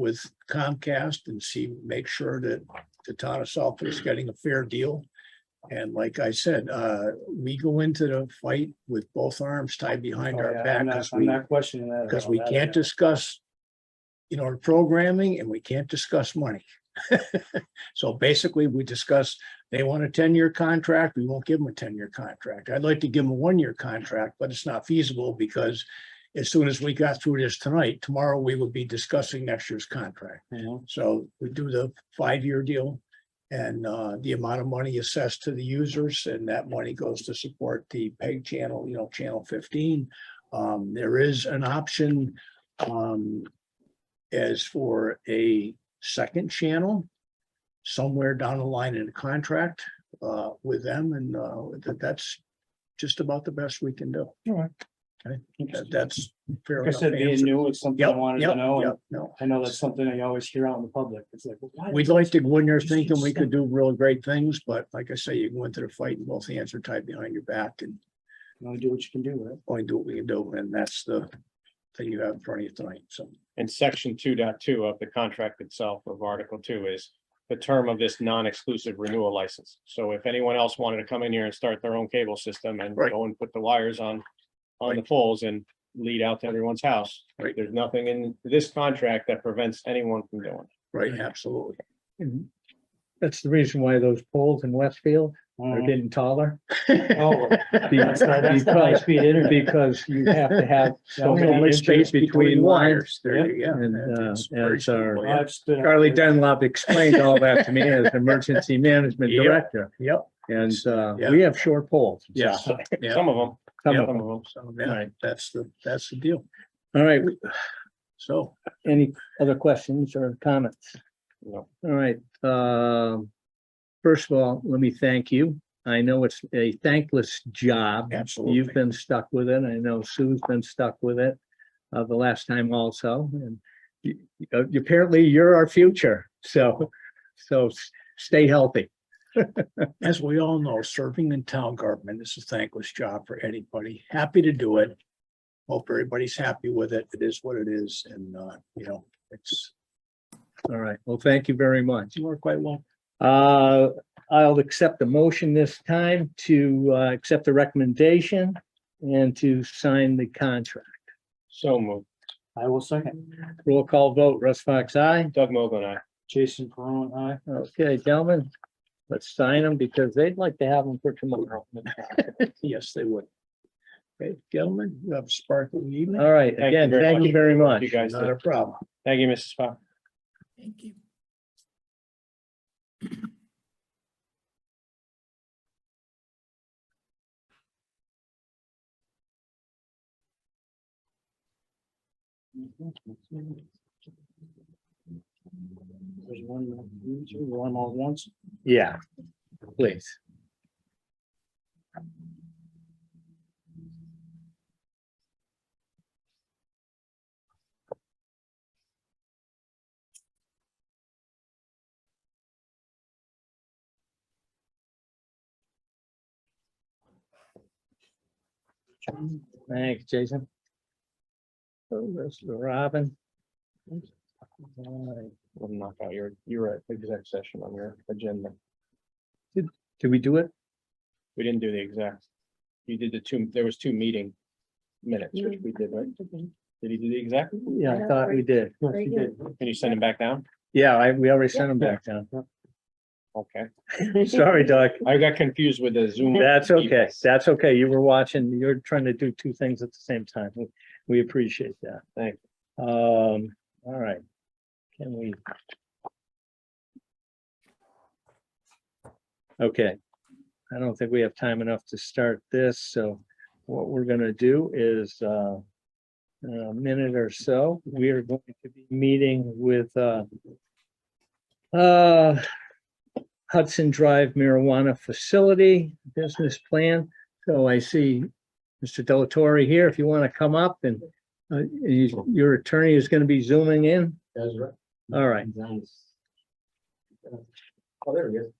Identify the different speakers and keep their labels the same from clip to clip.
Speaker 1: with Comcast and see, make sure that the town of Southwick is getting a fair deal. And like I said, uh, we go into the fight with both arms tied behind
Speaker 2: Oh,
Speaker 1: our
Speaker 2: yeah,
Speaker 1: back
Speaker 2: I'm not-
Speaker 1: because
Speaker 2: I'm
Speaker 1: we,
Speaker 2: not questioning that. at
Speaker 1: because
Speaker 2: all.
Speaker 1: we
Speaker 2: That-
Speaker 1: can't discuss, you know, programming and we can't discuss money. So basically, we discuss, they want a ten-year contract, we won't give them a ten-year contract. I'd like to give them a one-year contract, but it's not feasible because as soon as we got through this tonight, tomorrow we will be discussing next year's contract.
Speaker 2: you know,
Speaker 1: So we do the five-year deal and uh, the amount of money assessed to the users and that money goes to support the peg channel, you know, channel fifteen. Um, There is an option um, as for a second channel somewhere down the line in the contract uh, with them and uh, that- that's just about the best we can do. That-
Speaker 2: Like
Speaker 1: That's fair
Speaker 2: I
Speaker 1: enough.
Speaker 2: said, being
Speaker 1: answer.
Speaker 2: new, it's something I
Speaker 1: Yep,
Speaker 2: wanted to
Speaker 1: yep,
Speaker 2: know, and
Speaker 1: yep, No,
Speaker 2: I know that's something I always hear out in the public, it's like. well, why
Speaker 1: We'd
Speaker 2: did-
Speaker 1: like to go in there thinking we could do real great things, but like I say, you go into the fight and both hands are tied behind your back and
Speaker 2: You Only do what you can do, right?
Speaker 1: only do what we can do. And that's the thing you have in front of you tonight. So
Speaker 3: And section two point two of the contract itself of article two is the term of this non-exclusive renewal license. So if anyone else wanted to come in here and start their own cable system and
Speaker 1: Right.
Speaker 3: go and put the wires on, on the poles and lead out to everyone's house,
Speaker 1: Right.
Speaker 3: there's nothing in this contract that prevents anyone from doing. it.
Speaker 1: Right, absolutely.
Speaker 4: And Hmm. That's the reason why those poles in Westfield are
Speaker 1: Uh-huh.
Speaker 2: Mhm.
Speaker 4: getting taller.
Speaker 2: Oh,
Speaker 4: be-
Speaker 2: That's not- that's not
Speaker 4: because-
Speaker 2: high-speed internet.
Speaker 4: Because you have to have so
Speaker 2: Yeah,
Speaker 1: So
Speaker 4: many
Speaker 1: much
Speaker 4: inches
Speaker 1: space
Speaker 4: between wires.
Speaker 1: There you go.
Speaker 4: And, uh,
Speaker 1: It's
Speaker 4: and
Speaker 1: very
Speaker 4: it's our-
Speaker 1: simple, yeah.
Speaker 2: I've stood up
Speaker 4: Charlie
Speaker 2: there.
Speaker 4: Dunlop explained all that to me as emergency management
Speaker 1: Yep.
Speaker 4: director.
Speaker 1: Yep.
Speaker 4: And uh,
Speaker 1: Yeah.
Speaker 4: we have short poles.
Speaker 1: Yeah. Yeah.
Speaker 3: Some of them,
Speaker 4: Some
Speaker 3: some
Speaker 4: of
Speaker 3: of
Speaker 4: them.
Speaker 3: them.
Speaker 1: So yeah,
Speaker 4: Right.
Speaker 1: that's the, that's the deal.
Speaker 4: All right,
Speaker 1: So
Speaker 4: any other questions or comments?
Speaker 3: No.
Speaker 4: All right, um, first of all, let me thank you. I know it's a thankless job. You've
Speaker 1: absolutely.
Speaker 4: been stuck with it. I know Sue's been stuck with it uh, the last time also. And you- you- uh, apparently you're our future. So, so s- stay healthy.
Speaker 1: As we all know, serving in town government is a thankless job for anybody. Happy to do it. Hope everybody's happy with it. It is what it is. And, uh, you know, it's,
Speaker 4: All right. Well, thank you very much.
Speaker 1: you work quite well.
Speaker 4: Uh, I'll accept the motion this time to uh, accept the recommendation and to sign the contract.
Speaker 3: So moved.
Speaker 2: I will second.
Speaker 4: Roll call vote. Russ Fox, aye.
Speaker 3: Doug Mogul and I.
Speaker 2: Jason Perone, aye.
Speaker 4: Okay, gentlemen, let's sign them because they'd like to have them for tomorrow.
Speaker 1: Yes, they would. Okay, gentlemen, you have a sparkling evening.
Speaker 4: All right,
Speaker 3: you
Speaker 4: again,
Speaker 3: very
Speaker 4: thank
Speaker 3: much.
Speaker 4: you very much.
Speaker 3: You guys,
Speaker 1: Not a problem.
Speaker 3: thank you, Mrs. Fox.
Speaker 2: There's one, two, two, one all at once.
Speaker 4: Yeah, please. Thanks, Jason. Oh, there's Robin.
Speaker 3: We'll knock out your, your exec session on your agenda.
Speaker 4: Did we do it?
Speaker 3: We didn't do the exact. You did the two, there was two meeting minutes, which we did, right? Did he do the exact?
Speaker 4: Yeah, I thought we did.
Speaker 2: Yes, you did.
Speaker 3: Can you send them back down?
Speaker 4: Yeah, I, we already sent them back down.
Speaker 3: Okay,
Speaker 4: Sorry, Doc.
Speaker 3: I got confused with the Zoom.
Speaker 4: That's okay. That's okay. You were watching, you're trying to do two things at the same time. We- We appreciate that.
Speaker 3: Thank
Speaker 4: you. Um, all right. Can we? Okay. I don't think we have time enough to start this, so what we're gonna do is, uh, in a minute or so, we are going to be meeting with, uh, uh, Hudson Drive Marijuana Facility Business Plan. So I see Mr. Delatorre here, if you want to come up and uh, you- your attorney is going to be zooming in.
Speaker 5: That's right.
Speaker 4: All right,
Speaker 5: Nice. Oh, there he is.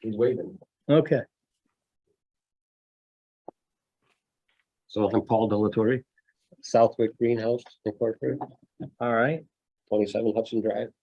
Speaker 5: He's waving.
Speaker 4: okay.
Speaker 5: So I'm Paul Delatorre, Southwick Greenhouse Incorporated.
Speaker 4: All right.
Speaker 5: twenty-seven Hudson Drive.